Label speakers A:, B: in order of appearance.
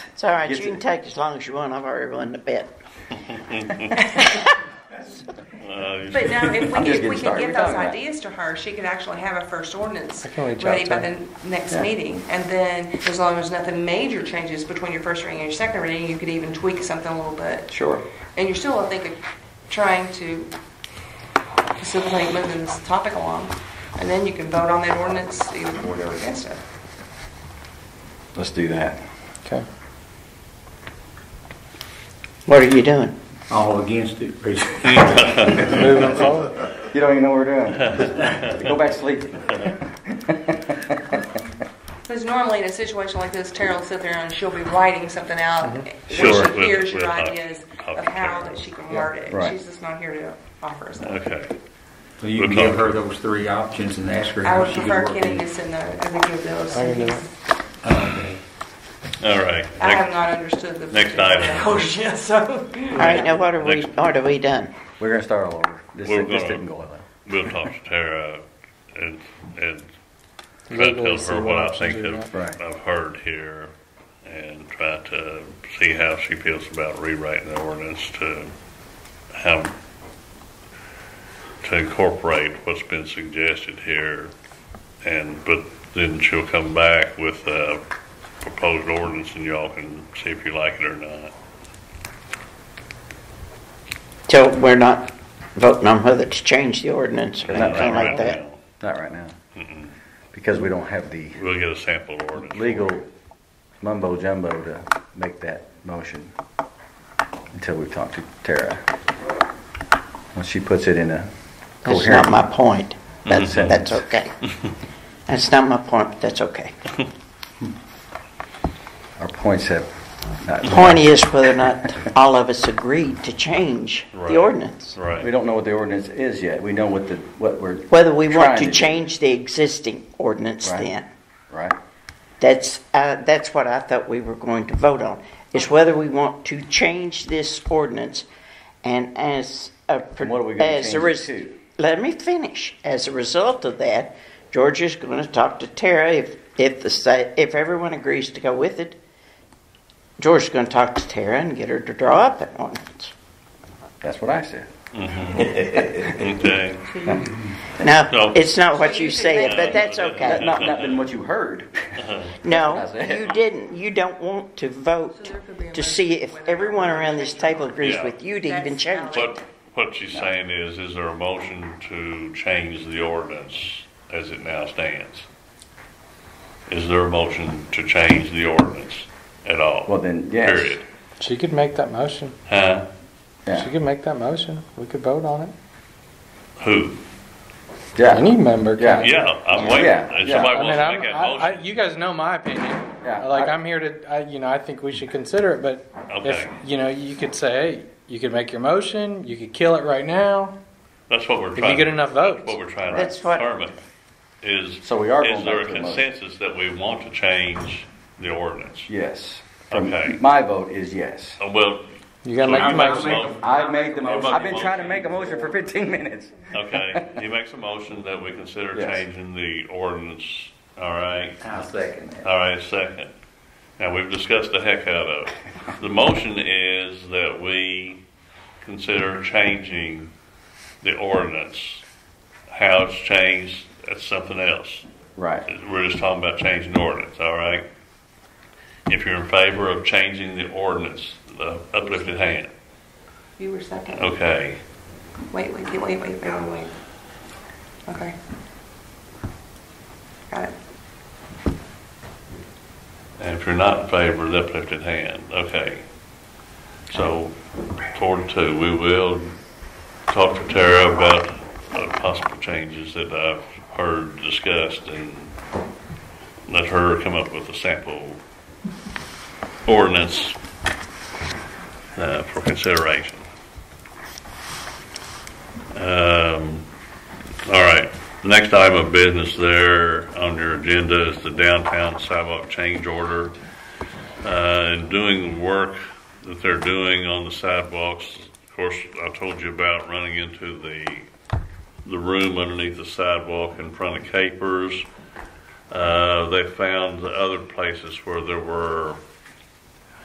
A: It's all right.
B: Yes,
A: you can
B: it-
A: take as long as you want. I've already run the bet.
C: But no, if we
B: I'm just
C: could, if we
B: getting
C: could
B: started.
C: get
B: We're
C: those
B: talking about-
C: ideas to her, she could actually have a first ordinance
D: I can reach
C: ready
D: out
C: by
D: to her.
C: the next
B: Yeah.
C: meeting. And then, as long as nothing major changes between your first reading and your second reading, you could even tweak something a little bit.
B: Sure.
C: And you're still, I think, trying to facilitate moving this topic along. And then you can vote on that ordinance either for or against it.
B: Let's do that.
D: Okay.
A: What are you doing?
E: All against it, basically.
D: Moving forward.
B: You don't even know what we're doing. Go back to sleep.
C: Because normally in a situation like this, Tara will sit there and she'll be writing something out. When
F: Sure,
C: she
F: with-
C: hears
F: with
C: your
F: a
C: ideas of
F: copy
C: how
F: Tara.
C: that she can word
B: right.
C: it. She's just not here to offer us that.
F: Okay.
E: So you can give her those three options and ask her
C: I
E: how
C: would
E: she could
C: prefer
E: work
C: Kenny
E: it.
C: to send the, I think those.
D: I can do
C: things.
F: All right.
C: I have
F: Next-
C: not understood the.
F: Next item.
C: Oh, shit, so.
A: All right, now what are we?
F: Next.
A: What are we done?
B: We're gonna start all over. This,
F: We're
B: this
F: gonna-
B: didn't go well.
F: We'll talk to Tara and, and try to
D: Legally
F: tell
D: see
F: her
D: what
F: what I
D: options
F: think
D: we
F: of-
B: got. Right.
F: I've heard here and try to see how she feels about rewriting the ordinance to how, to incorporate what's been suggested here. And, but then she'll come back with a proposed ordinance and y'all can see if you like it or not.
A: So we're not voting on whether to change the ordinance or
B: Not
A: anything
B: right
A: like that.
F: now.
B: Not right now. Because we don't have the
F: We'll get a sample ordinance.
B: legal mumbo jumbo to make that motion until we talk to Tara. When she puts it in a
A: That's not my
B: coherent,
A: point. That's
B: Mhm.
A: that's okay. That's not my point. But that's okay.
B: our points have not.
A: Point is whether or not all of us agreed to change
F: Right.
A: the ordinance.
F: Right.
B: We don't know what the ordinance is yet. We know what the, what we're.
A: Whether we want
B: trying
A: to
B: do.
A: change the existing ordinance
B: Right.
A: then.
B: Right,
A: That's, uh, that's what I thought we were going to vote on, is whether we want to change this ordinance and as a.
B: And what are we gonna
A: as a
B: change it
A: res-
B: to?
A: Let me finish. As a result of that, Georgia's gonna talk to Tara if, if the state, if everyone agrees to go with it. Georgia's gonna talk to Tara and get her to draw up an ordinance.
B: that's what I said.
F: Okay.
A: Now,
F: No.
A: it's not what
C: So
A: you
C: you can
A: said,
C: make-
A: but that's
B: That-
A: okay.
B: Not, not been what you heard.
A: No,
B: That's what I said.
A: you didn't. You don't want to vote
C: So there could be a
A: to see
C: motion
A: if
C: whether or
A: everyone
C: not we
A: around this
C: change
A: table agrees
F: Yeah.
A: with you to
C: That's
A: even change
C: valid.
A: it.
F: What, what she's saying is, is there a motion to change the ordinance as it now stands? Is there a motion to change the ordinance at all?
B: Well, then, yes.
F: Period.
D: She could make that motion.
F: Huh?
B: Yeah.
D: She could make that motion. We could vote on it.
F: Who?
B: Yeah.
D: Any member
B: Yeah.
D: can.
F: Yeah, I'm waiting.
B: Yeah,
F: If
B: yeah.
F: somebody
D: I mean,
F: wants to
D: I'm,
F: make that
D: I, I,
F: motion.
D: you guys know my opinion.
B: Yeah,
D: Like,
B: I-
D: I'm here to, I, you know, I think we should consider it, but if,
F: Okay.
D: you know, you could say, hey, you could make your motion, you could kill it right now.
F: That's what we're
D: you
F: trying.
D: get enough votes.
F: that's What we're trying to
A: That's what-
F: determine is, is
B: So we are going
F: there a
B: back to the motion.
F: consensus that we want to change the ordinance?
B: Yes.
F: Okay.
B: My vote is yes.
F: Uh, Well,
D: You gotta
F: so
D: make
F: you
D: your
F: make a
D: motion.
F: motion.
B: I made the motion.
F: Everybody
B: I've been trying to
F: motion.
B: make a motion for 15 minutes.
F: Okay, he makes a motion that we consider
B: Yes.
F: changing the ordinance, all right?
B: I'll second that.
F: All right, second. Now, we've discussed the heck out of it. The motion is that we consider changing the ordinance. How it's changed, that's something else.
B: Right.
F: We're just talking about changing the ordinance, all right? If you're in favor of changing the ordinance, the uplifted hand,
C: You were second.
F: okay?
C: Wait, wait, wait, wait, wait, wait, wait. Okay. Got it.
F: And if you're not in favor, the uplifted hand, okay. So, four to two, we will talk to Tara about uh, possible changes that I've heard discussed and let her come up with a sample ordinance uh, for consideration. Um, all right, the next item of business there on your agenda is the downtown sidewalk change order. Uh, and doing the work that they're doing on the sidewalks, of course, I told you about running into the, the room underneath the sidewalk in front of Capers. Uh, they found the other places where there were